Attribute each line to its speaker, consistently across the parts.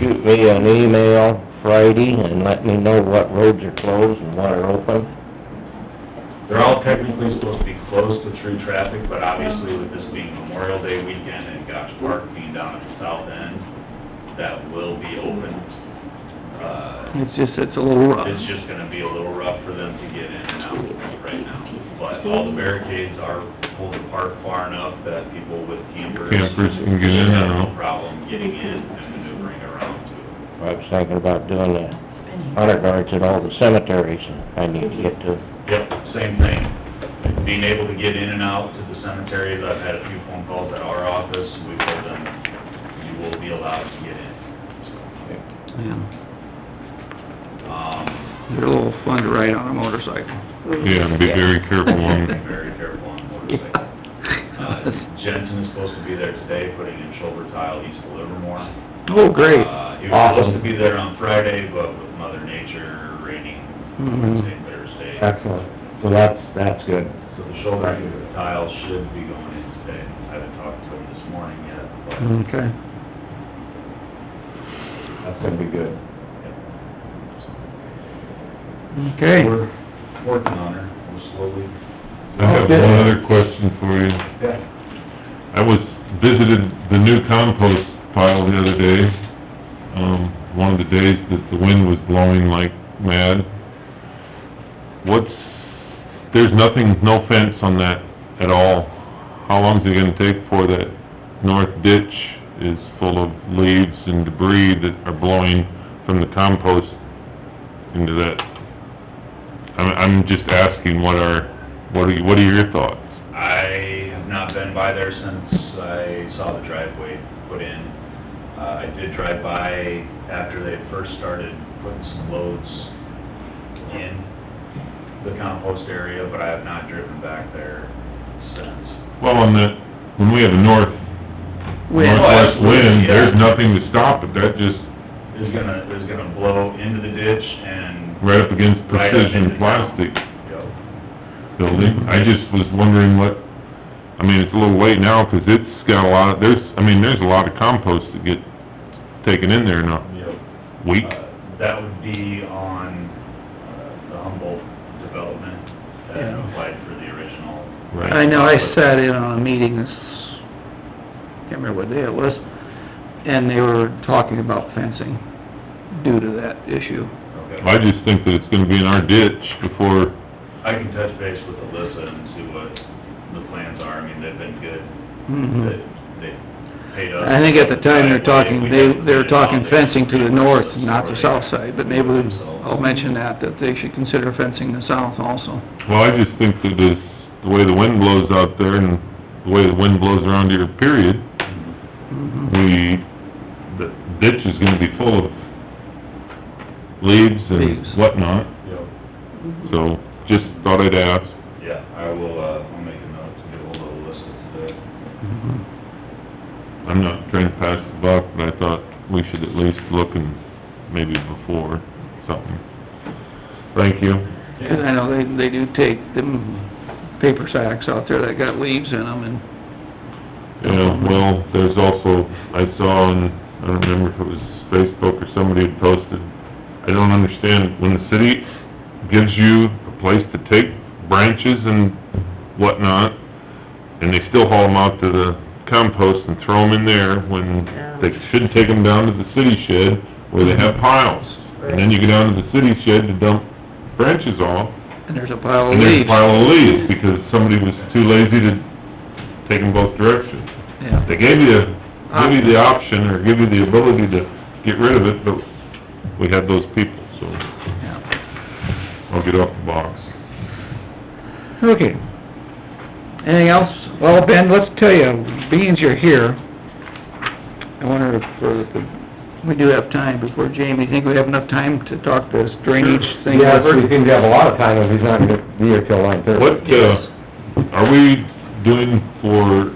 Speaker 1: shoot me an email Friday and let me know what roads are closed and what are open?
Speaker 2: They're all technically supposed to be closed to through traffic, but obviously with this being Memorial Day weekend and Gosh Park being down at the south end, that will be open. Uh,
Speaker 3: It's just, it's a little rough.
Speaker 2: it's just gonna be a little rough for them to get in and out right now. But all the barricades are pulled apart far enough that people with campers.
Speaker 4: Campers can get in and
Speaker 2: have no
Speaker 4: out.
Speaker 2: Problem getting in and maneuvering around to
Speaker 1: I
Speaker 2: it.
Speaker 1: was thinking about doing the honor guards at all the cemeteries I need to get to.
Speaker 2: Yep, same thing. Being able to get in and out to the cemeteries, I've had a few phone calls at our office, we told them, you will be allowed to get in.
Speaker 3: Yeah.
Speaker 2: Um,
Speaker 3: They're a little fun to ride on a motorcycle.
Speaker 4: Yeah, and be very careful
Speaker 2: be
Speaker 4: on,
Speaker 2: very careful on motorcycles. Uh, Jensen is supposed to be there today, putting in shoulder tile east of Livermore.
Speaker 3: Oh, great.
Speaker 2: Uh, He was supposed to be there on Friday, but with Mother Nature raining
Speaker 3: Mm-hmm.
Speaker 2: Wednesday, Thursday.
Speaker 1: Excellent. So that's, that's good.
Speaker 2: So the shoulder tile should be going in today. I haven't talked to him this morning yet, but
Speaker 3: Okay.
Speaker 1: That's gonna be good.
Speaker 3: Okay.
Speaker 2: We're working on her, we're slowly.
Speaker 4: I have one other question for you.
Speaker 2: Yeah.
Speaker 4: I was, visited the new compost pile the other day, um, one of the days that the wind was blowing like mad. What's, there's nothing, no fence on that at all. How long's it gonna take before that north ditch is full of leaves and debris that are blowing from the compost into that? I'm, I'm just asking what are, what are, what are your thoughts?
Speaker 2: I have not been by there since I saw the driveway put in. Uh, I did drive by after they first started putting some loads in the compost area, but I have not driven back there since.
Speaker 4: Well, on the, when we have a north,
Speaker 3: Wind.
Speaker 4: northwest wind,
Speaker 2: Yeah.
Speaker 4: there's nothing to stop it, that just,
Speaker 2: It's gonna, it's gonna blow into the ditch and,
Speaker 4: right up against
Speaker 2: Right up into
Speaker 4: precision
Speaker 2: town.
Speaker 4: plastic
Speaker 2: you know,
Speaker 4: building. I just was wondering what, I mean, it's a little late now, 'cause it's got a lot, of there's, I mean, there's a lot of compost that get taken in there in a
Speaker 2: you know,
Speaker 4: week.
Speaker 2: Uh, That would be on uh, the Humboldt development that
Speaker 3: Yeah.
Speaker 2: applied for the original.
Speaker 3: I know, I sat in on a meeting this, can't remember what day it was, and they were talking about fencing due to that issue.
Speaker 2: Okay.
Speaker 4: I just think that it's gonna be in our ditch before,
Speaker 2: I can touch base with Alyssa and see what the plans are. I mean, they've been good. They,
Speaker 3: Mhm.
Speaker 2: they paid us.
Speaker 3: I think at the time they're
Speaker 2: We
Speaker 3: talking, they,
Speaker 2: haven't
Speaker 3: they were
Speaker 2: been out
Speaker 3: talking
Speaker 2: there.
Speaker 3: fencing to the north, not the
Speaker 2: Or they-
Speaker 3: south side, but maybe we-
Speaker 2: So-
Speaker 3: I'll mention that, that they should consider fencing the south also.
Speaker 4: well, I just think that this, the way the wind blows out there and the way the wind blows around here, period,
Speaker 3: Mhm.
Speaker 4: we, the ditch is gonna be full of leaves and
Speaker 3: Leaves.
Speaker 4: whatnot,
Speaker 2: Yep.
Speaker 4: so just thought I'd ask.
Speaker 2: Yeah, I will, uh, I'll make a note to get ahold of Alyssa today.
Speaker 3: Mhm.
Speaker 4: I'm not trying to pass the buck, but I thought we should at least look and maybe before something. Thank you.
Speaker 3: Because I know they, they do take them paper sacks out there that got leaves in them and,
Speaker 4: Yeah, well, there's also, I saw on, I don't remember if it was Facebook or somebody had posted, I don't understand, when the city gives you a place to take branches and whatnot, and they still haul them out to the compost and throw them in there when they should take them down to the city shed where they have piles. And then you go down to the city shed to dump branches off,
Speaker 3: and there's a pile of
Speaker 4: and there's a
Speaker 3: leaves.
Speaker 4: pile of leaves because somebody was too lazy to take them both directions.
Speaker 3: Yeah.
Speaker 4: They gave you, give you the option, or give you the ability to get rid of it, but we had those people, so
Speaker 3: Yeah.
Speaker 4: I'll get off the box.
Speaker 3: Okay. Anything else? Well, Ben, let's tell you, beans are here, I wonder if, uh, we do have time before Jamie, think we have enough time to talk this drainage thing
Speaker 1: Yes, we
Speaker 3: over?
Speaker 1: seem to have a lot of time if he's not gonna be here till nine thirty.
Speaker 4: What, uh, are we doing for,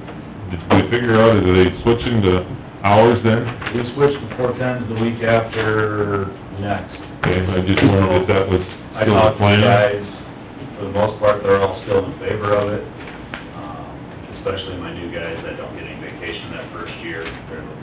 Speaker 4: did we figure out, are they switching to hours then?
Speaker 2: We switched to four tens the week after next.
Speaker 4: Okay, I just wondered if that was
Speaker 2: I
Speaker 4: still the
Speaker 2: talked to the
Speaker 4: plan.
Speaker 2: guys, for the most part, they're all still in favor of it, um, especially my new guys that don't get any vacation that first year. They're